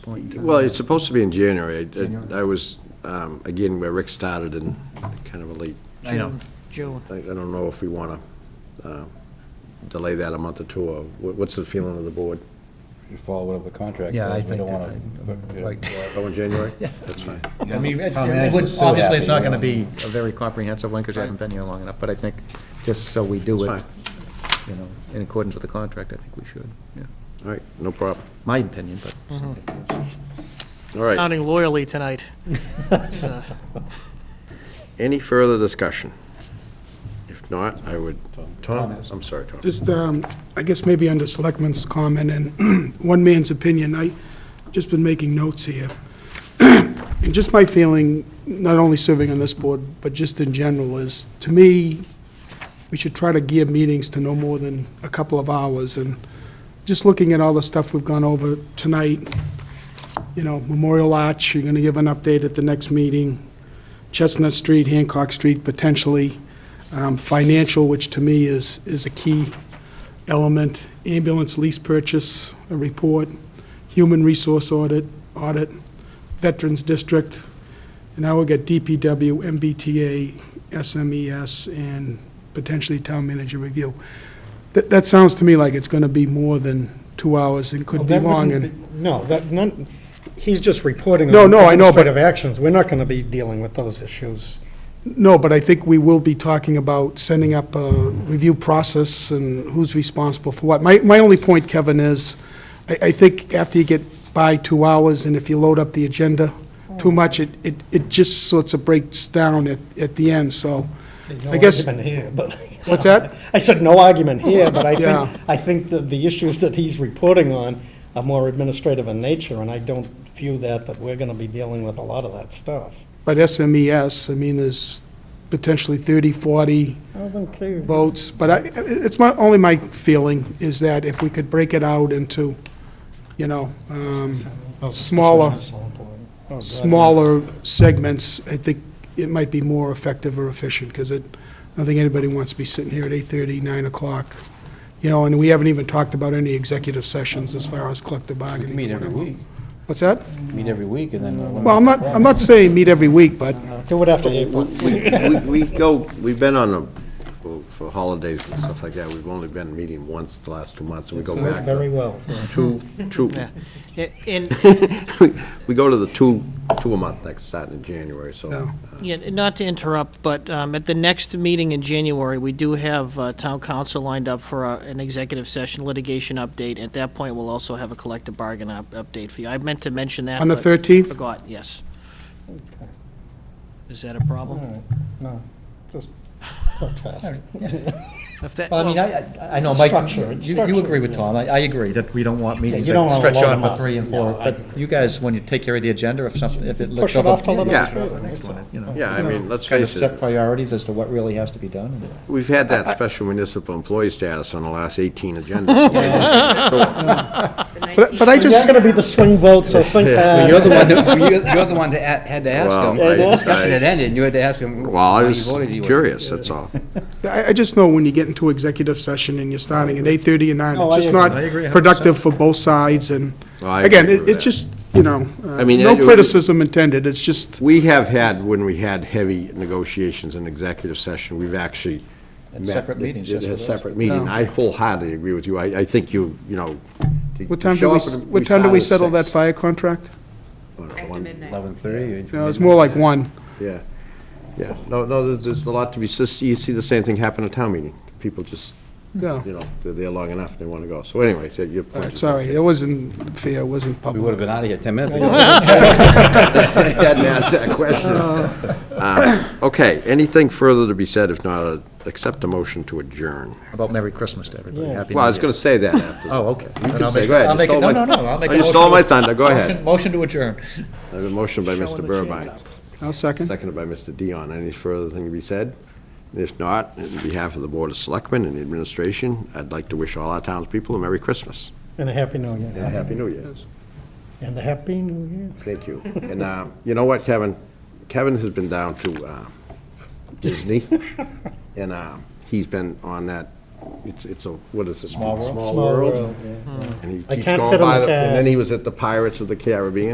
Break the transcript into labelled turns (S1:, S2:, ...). S1: point.
S2: Well, it's supposed to be in January. I- I I was, um, again, where Rick started in kind of a late,
S1: I know. June.
S2: I I don't know if we want to delay that a month or two, or wha- what's the feeling of the board?
S3: You follow whatever the contract
S1: Yeah, I
S3: says, we
S1: think
S3: don't
S1: that-
S3: want to.
S2: Oh, in January? Yeah. That's fine.
S1: I mean, it's-
S3: Town
S1: it
S3: manager's
S1: would-
S3: so
S1: obviously, it's not
S3: happy,
S1: going to be
S3: you
S1: a very comprehensive one, because you haven't been here long enough, but I think, just so we do
S2: That's
S1: it, you know, in accordance with the contract, I think we should, yeah.
S2: All right, no problem.
S1: My opinion, but.
S2: All right,
S4: Sounding loyally tonight. It's, uh,
S2: any further discussion? If not, I would, Tom, I'm sorry, Tom.
S5: Just, um, I guess maybe under Selectman's comment and one man's opinion, I just been making notes here. And just my feeling, not only serving on this board, but just in general, is, to me, we should try to gear meetings to no more than a couple of hours. And just looking at all the stuff we've gone over tonight, you know, Memorial Arch, you're going to give an update at the next meeting. Chestnut Street, Hancock Street, potentially. Um, Financial, which to me is, is a key element. Ambulance lease purchase, a report. Human resource audit, audit. Veterans District. And now we've got DPW, MBTA, SMES, E and potentially Town Manager Review. That, that sounds to me like it's going to be more than two hours and could be
S6: Well, Oh, that
S5: long.
S6: wouldn't
S5: and-
S6: be- No, that, none, he's just reporting
S5: No,
S6: on
S5: no, I know, but-
S6: administrative actions. We're not gonna be dealing with those issues.
S5: No, but I think we will be talking about setting up a review process and who's responsible for what. My, my only point, Kevin, is I, I think after you get by two hours and if you load up the agenda too much, it, it, it just sorts of breaks down at, at the end, so. I guess,
S6: No argument here, but.
S5: what's that?
S6: I said no argument here, but I
S5: Yeah.
S6: think, I think that the issues that he's reporting on are more administrative in nature, and I don't view that, that we're gonna be dealing with a lot of that stuff.
S5: But SMES, I mean, is potentially 30, 40
S6: I don't care.
S5: votes, but I, it's my, only my feeling is that if we could break it out into, you know, um, smaller- smaller segments, I think it might be more effective or efficient, because it, I don't think anybody wants to be sitting here at 8:30, 9 o'clock, you know, and we haven't even talked about any executive sessions as far as collective bargaining.
S3: Meet every week,
S5: What's that?
S3: meet every week, and then. uh,
S5: Well, I'm not, I'm not saying meet every week, but,
S6: Do it after April.
S2: We we go, we've been on a, for holidays and stuff like that, we've only been meeting once the last two months, and we go back
S6: Very
S2: to
S6: well.
S2: two, two,
S4: a- And,
S2: we go to the two, two a month next, starting in January, so.
S5: No.
S4: yeah, not to interrupt, but um, at the next meeting in January, we do have uh, town council lined up for uh, an executive session litigation update. At that point, we'll also have a collective bargain up- update for you. I meant to mention that.
S5: On the
S4: but
S5: 13th?
S4: Forgot, yes. Is that a problem?
S6: No, just talk fast.
S4: If that-
S1: Well, I mean,
S4: well,
S1: I, I- I know, Mike,
S6: Structure, it's
S1: you, you agree with
S6: structure,
S1: Tom, I, I agree that we don't want meetings
S6: you don't
S1: that
S6: wanna
S1: stretch
S6: load
S1: on
S6: them
S1: for
S6: up.
S1: three and four,
S6: No, I
S1: but you guys, when you take care of the agenda, if something, if it looks
S6: Push it
S1: over.
S6: off till the
S2: Yeah.
S6: next meeting. that's all.
S1: You know,
S2: Yeah, I mean, let's
S1: kind of
S2: face
S1: set
S2: it,
S1: priorities as to what really has to be done. and-
S2: we've had that special municipal employee status on the last 18 agendas.
S5: but but I
S6: But You're
S5: just,
S6: gonna be the swing vote, so think uh,
S3: Well,
S6: that.
S3: You're the one, that- you're you're the one that a- had to ask him,
S2: Well, I-
S3: the discussion had ended, and you had to ask him.
S2: Well, I
S3: why he
S2: was
S3: voted he was.
S2: curious, that's all.
S5: I I just know when you get into executive session and you're starting at 8:30 and 9,
S6: Oh,
S5: it's
S6: I
S5: just
S6: agree.
S5: not
S1: I agree a hundred
S5: productive for both sides, and,
S2: Well, Oh, I
S5: again,
S2: agree with
S5: it it
S2: that.
S5: just, you know, uh,
S2: I mean,
S5: no
S2: I do-
S5: criticism intended, it's just,
S2: We have had, when we had heavy negotiations in executive session, we've actually.
S1: Had
S2: met-
S1: separate meetings,
S2: did
S1: that's
S2: a
S1: what it was.
S2: separate meeting.
S5: No.
S2: I wholeheartedly agree with you. I, I think you, you know. to-
S5: what
S2: to
S5: time do
S2: show
S5: we,
S2: up
S5: s-
S2: and
S5: what time do we
S2: start
S5: settle
S2: at
S5: that
S2: six.
S5: fire contract?
S2: I don't know,
S7: After
S2: one-
S7: midnight.
S3: Eleven thirty.
S5: No, it's more like 1.
S2: Yeah, yeah. No, no, there's, there's a lot to be, sis- you see the same thing happen at town meeting. People just,
S5: Yeah.
S2: you know, they're there long enough, they want to go. So anyway, so your point. is-
S5: Sorry, it wasn't fair, it wasn't
S3: We would
S5: public.
S3: have been out of here ten minutes ago.
S2: I hadn't asked that question. Uh, Okay, anything further to be said? If not, uh, accept a motion to adjourn.
S1: About Merry Christmas to everybody, Happy New Year.
S2: Well, I was going to say that after.
S1: Oh, okay.
S2: You
S1: Then
S2: can
S1: I'll
S2: say,
S1: make-
S2: go ahead.
S1: I'll
S2: You
S1: make it-
S2: stole
S1: no,
S2: my-
S1: no, no, I'll make
S2: Oh,
S1: a
S2: You stole
S1: motion
S2: my
S1: to-
S2: thunder, go ahead.
S1: Motion- Motion to adjourn.
S2: I have a motion by Mr. Burbine,
S5: I'll second.
S2: seconded by Mr. Dion. Any further thing to be said? If not, on behalf of the Board of Selectmen and the administration, I'd like to wish all our townspeople a Merry Christmas
S6: And a happy new
S2: and a
S6: year.
S2: Happy New Year.
S6: And a happy new year.
S2: Thank you. And uh, you know what, Kevin? Kevin has um, been down to uh, Disney, and uh, he's been on that it's, it's a, what is it?
S3: Small world?
S6: Small world, yeah.
S2: And he
S6: I
S2: keeps
S6: can't
S2: going
S6: fit in
S2: by
S6: the
S2: the- And
S6: cab.
S2: then he was at the Pirates of the Caribbean,